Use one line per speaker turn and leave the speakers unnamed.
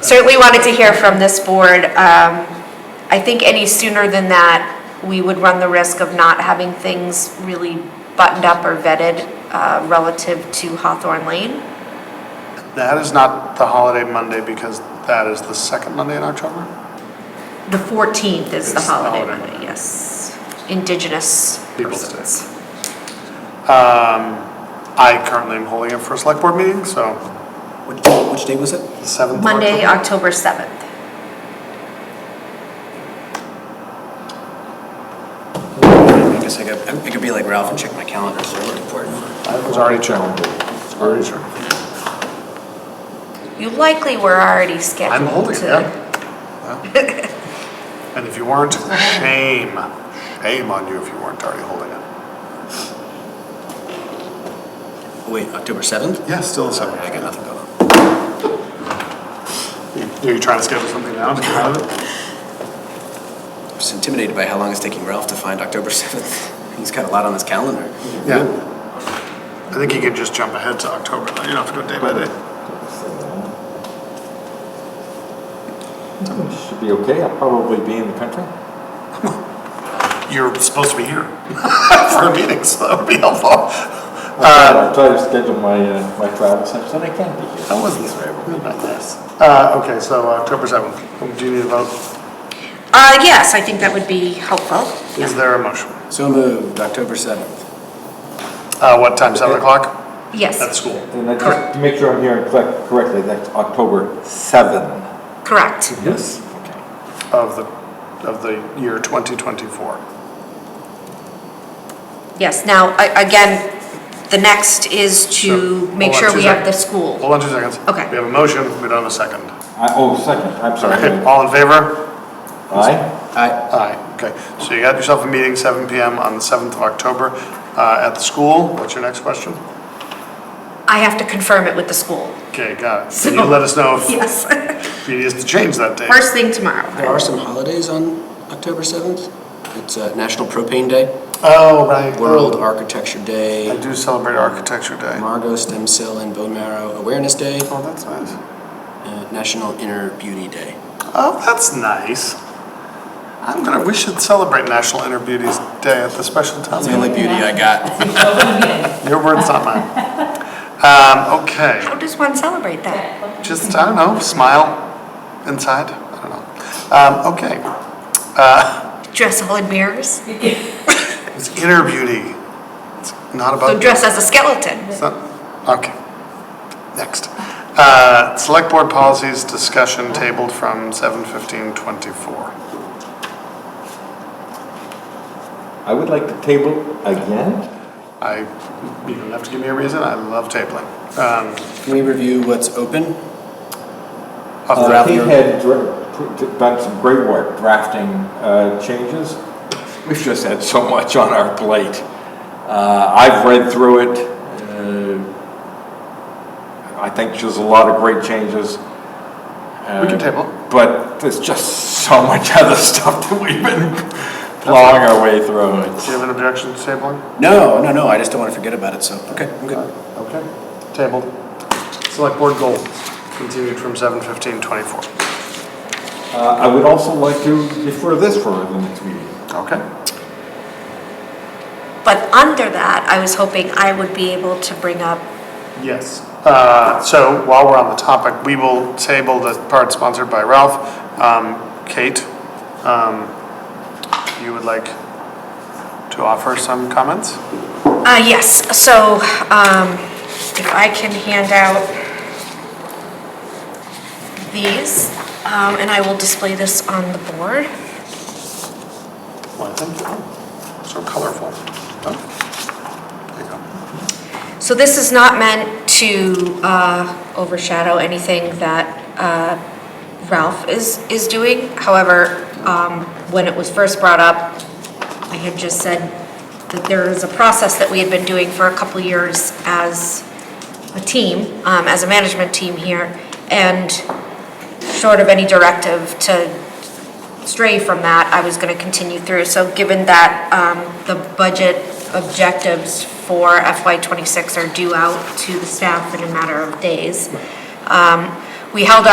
certainly wanted to hear from this board. Um, I think any sooner than that, we would run the risk of not having things really buttoned up or vetted uh, relative to Hawthorne Lane.
That is not the holiday Monday because that is the second Monday in October?
The 14th is the
It's the
holiday
holiday.
Monday, yes. Indigenous
People's Day.
persons.
Um, I currently am holding it for a select board meeting, so
Which, which day was it?
the 7th of
Monday,
October.
October 7th.
I guess I could, I could be like Ralph and check my calendar, so I'm looking for it.
That was already checked. It's already checked.
You likely were already scheduled
I'm
to.
holding it, yeah. And if you weren't, shame, shame on you if you weren't already holding it.
oh, Wait, October 7th?
Yeah, still the
I
7th.
got nothing going on.
Are you trying to schedule something now to get out of it?
I'm just intimidated by how long it's taking Ralph to find October 7th. He's got a lot on his calendar.
Yeah. I think you can just jump ahead to October, though. you don't have to do it day by day.
Should be okay, I'll probably be in the country.
You're supposed to be here for meetings, so that would be helpful.
I'll try to schedule my, uh, my travel such that I can be here.
That wasn't very Uh, okay, so October 7th, do you need a vote?
Uh, yes, I think that would be helpful.
Is there a motion?
So moved, October 7th.
Uh, what time, 7 o'clock? At the
Yes,
school.
And I just, to make sure I'm hearing correct- correctly, that's October 7.
correct.
Yes.
Of the, of the year 2024.
Yes, now, a- again, the next is
So,
to make
hold on
sure
two
we have the
seconds.
school.
Hold on two seconds.
Okay.
We have a motion, we don't have a second.
I, oh, second, I'm
Okay,
sorry.
all in favor?
Aye?
I,
Aye, okay. So you got yourself a meeting, 7 PM on the 7th of October uh, at the school. What's your next question?
I have to confirm it with the school.
Okay, got it.
So-
Can you let us know
Yes.
if you need us to change that date?
First thing tomorrow.
there are some holidays on October 7th. It's uh, National Propane Day,
Oh, right.
World Architecture Day,
I do celebrate Architecture Day.
Margot Stem Cell and Bone Marrow Awareness Day,
Oh, that's nice.
uh, National Inner Beauty Day.
Oh, that's nice. I'm gonna, we should celebrate National Inner Beauty's Day at the special town
That's the only
meeting.
beauty I got.
Your word's not mine. Um, okay,
How does one celebrate that?
just, I don't know, smile inside, I don't know. Um, okay,
Dress all in mirrors?
it's inner beauty. It's not
So
about,
dress as a skeleton.
it's not, okay. Next. Uh, select board policies discussion tabled from seven fifteen twenty-four.
I would like to table again.
I, you don't have to give me a reason, I love tabling. Um,
Can we review what's open?
of the-
Uh, He had dra- pr- done some great work drafting uh, changes. We've just had so much on our plate. Uh, I've read through it. Uh, I think there's a lot of great changes.
We
Uh,
can table.
But there's just so much other stuff that we've been plowing our way through.
Do you
It's-
have an objection to tabling?
No, no, no, I just don't want to forget about it, so, okay, I'm good.
Uh, Okay, tabled. Select board goals, continued from seven fifteen twenty-four.
uh, I would also like to defer this for the next meeting.
Okay.
But under that, I was hoping I would be able to bring up,
Yes. Uh, so while we're on the topic, we will table the part sponsored by Ralph. Um, Kate, um, you would like to offer some comments?
uh, yes, so, um, if I can hand out these, um, and I will display this on the board.
Well, I think, oh, so colorful. Oh, There you go.
So this is not meant to uh, overshadow anything that uh, Ralph is, is doing. However, um, when it was first brought up, I had just said that there is a process that we had been doing for a couple years as a team, um, as a management team here, and short of any directive to stray from that, I was going to continue through. So given that um, the budget objectives for FY '26 are due out to the staff in a matter of days, um, we held